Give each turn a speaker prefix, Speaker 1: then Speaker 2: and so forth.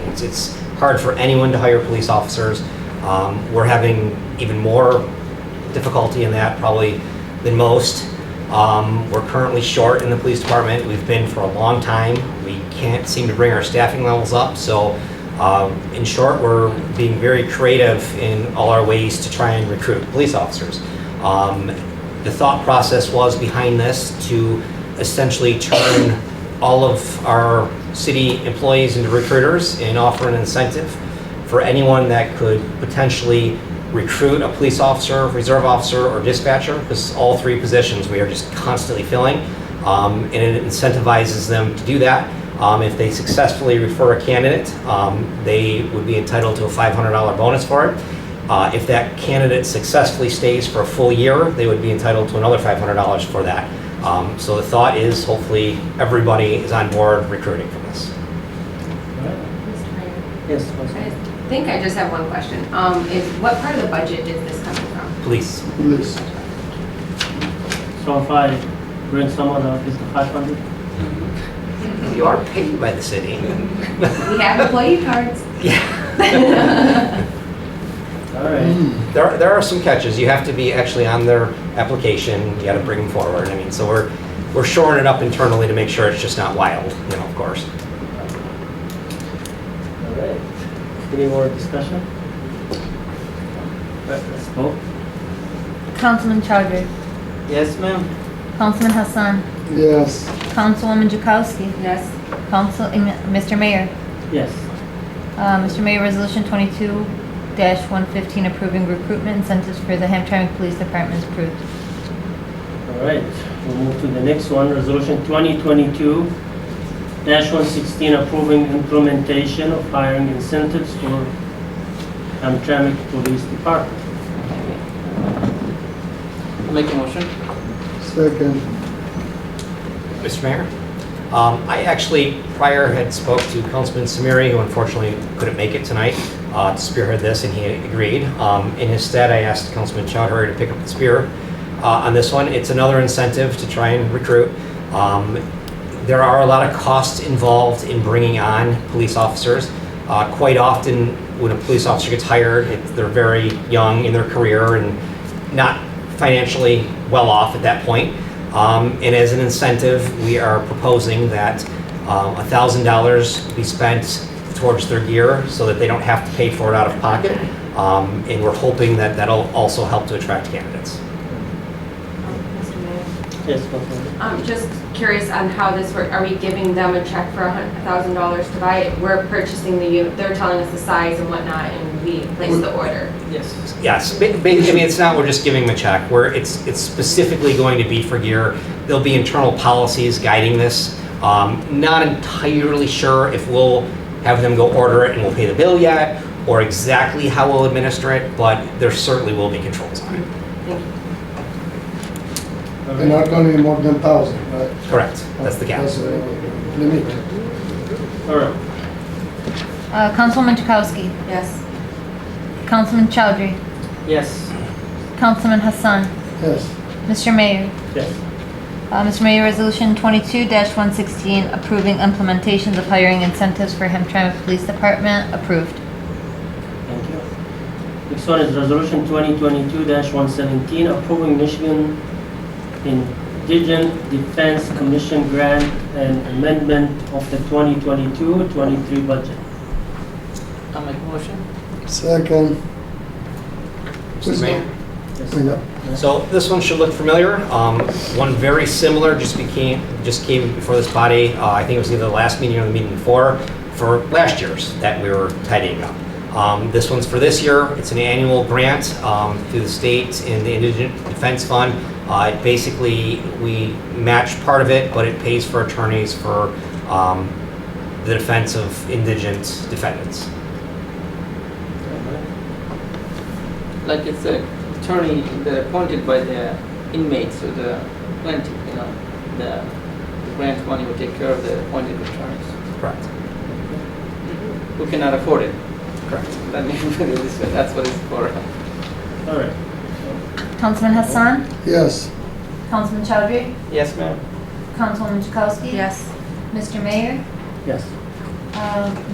Speaker 1: happens. It's hard for anyone to hire police officers. Um, We're having even more difficulty in that probably than most. Um, We're currently short in the police department. We've been for a long time. We can't seem to bring our staffing levels up. So um, in short, we're being very creative in all our ways to try and recruit police officers. Um, the thought process was behind this to essentially turn all of our city employees into recruiters and offer an incentive for anyone that could potentially recruit a police officer, reserve officer, or dispatcher, because all three positions we are just constantly filling. Um, and it incentivizes them to do that. Um, if they successfully refer a candidate, um, they would be entitled to a $500 bonus for it. Uh, If that candidate successfully stays for a full year, they would be entitled to another $500 for that. Um, So the thought is hopefully everybody is on board recruiting for this.
Speaker 2: Mr. Mayor,
Speaker 3: Yes,
Speaker 2: I think I just have one question. Um, is, what part of the budget is this coming from?
Speaker 1: Police,
Speaker 4: Please.
Speaker 3: so if I bring someone up, is the five hundred?
Speaker 1: you are paid by the city.
Speaker 2: We have employee cards.
Speaker 1: Yeah.
Speaker 3: All right,
Speaker 1: There are- there are some catches. You have to be actually on their application. You got to bring them forward. I mean, so we're we're shoring it up internally to make sure it's just not wild, you know, of course.
Speaker 3: all right. Any more discussion? All right, Let's vote.
Speaker 5: Councilman Chowdhury.
Speaker 3: Yes, ma'am.
Speaker 5: Councilman Hassan.
Speaker 4: Yes.
Speaker 5: Councilwoman Jakowski.
Speaker 2: Yes.
Speaker 5: Council, eh, Mr. Mayor.
Speaker 3: Yes.
Speaker 5: Uh, Mr. Mayor, Resolution 22-115 approving recruitment incentives for the Hamtramck Police Department is approved.
Speaker 3: All right, we'll move to the next one, resolution twenty twenty-two one sixteen, approving implementation of hiring incentives for Hamtramck Police Department.
Speaker 6: Make a motion.
Speaker 4: Second.
Speaker 1: Mr. Mayor? Um, I actually prior had spoke to Councilman Samiri, who unfortunately couldn't make it tonight, uh, to spearhead this, and he agreed. Um, In his stead, I asked Councilman Chowdhury to pick up the spear uh, on this one. It's another incentive to try and recruit. Um, There are a lot of costs involved in bringing on police officers. Uh, Quite often, when a police officer gets hired, it- they're very young in their career and not financially well off at that point. Um, And as an incentive, we are proposing that um, $1,000 be spent towards their gear so that they don't have to pay for it out of pocket. Um, And we're hoping that that'll also help to attract candidates.
Speaker 2: Mr. Mayor.
Speaker 3: Yes, ma'am.
Speaker 2: I'm just curious on how this works. Are we giving them a check for a thousand dollars to buy it? We're purchasing the unit, they're telling us the size and whatnot, and we place the order.
Speaker 3: Yes.
Speaker 1: Yes, ba- ba- I mean, it's not, we're just giving them a check, where it's, it's specifically going to be for gear. There'll be internal policies guiding this. Um, Not entirely sure if we'll have them go order it and we'll pay the bill yet, or exactly how we'll administer it, but there certainly will be controls on it.
Speaker 2: Thank you.
Speaker 3: All right.
Speaker 4: And not only more than thousand, right?
Speaker 1: Correct, that's the cap.
Speaker 4: That's the limit.
Speaker 3: All right.
Speaker 5: Uh, Councilwoman Jakowski.
Speaker 2: Yes.
Speaker 5: Councilman Chowdhury.
Speaker 3: Yes.
Speaker 5: Councilman Hassan.
Speaker 4: Yes.
Speaker 5: Mr. Mayor.
Speaker 3: Yes.
Speaker 5: Uh, Mr. Mayor, Resolution 22-116 approving implementations of hiring incentives for Hamtramck Police Department approved.
Speaker 3: Thank you. Next one is Resolution 2022-117, approving Michigan Indigent Defense Commission grant and amendment of the 2022-23 budget.
Speaker 6: I'll make a motion.
Speaker 4: Second.
Speaker 1: Mr. Mayor?
Speaker 3: Yes.
Speaker 4: Yeah.
Speaker 1: So this one should look familiar. Um, One very similar just became, just came before this body, uh, I think it was either the last meeting or the meeting before, for last year's that we were tidying up. Um, This one's for this year. It's an annual grant um, through the state in the Indigent Defense Fund. Uh, It Basically, we match part of it, but it pays for attorneys for um, the defense of indigent defendants.
Speaker 6: Like it's a attorney that appointed by the inmates or the plaintiff, you know, the the grant money will take care of the appointed attorneys
Speaker 1: Correct.
Speaker 6: who cannot afford it.
Speaker 1: Correct.
Speaker 6: That means that it's- That's what it's for.
Speaker 3: All right.
Speaker 5: Councilman Hassan.
Speaker 4: Yes.
Speaker 5: Councilman Chowdhury.
Speaker 6: Yes, ma'am.
Speaker 5: Councilwoman Jakowski.
Speaker 2: Yes.
Speaker 5: Mr. Mayor.
Speaker 3: Yes.
Speaker 5: Uh,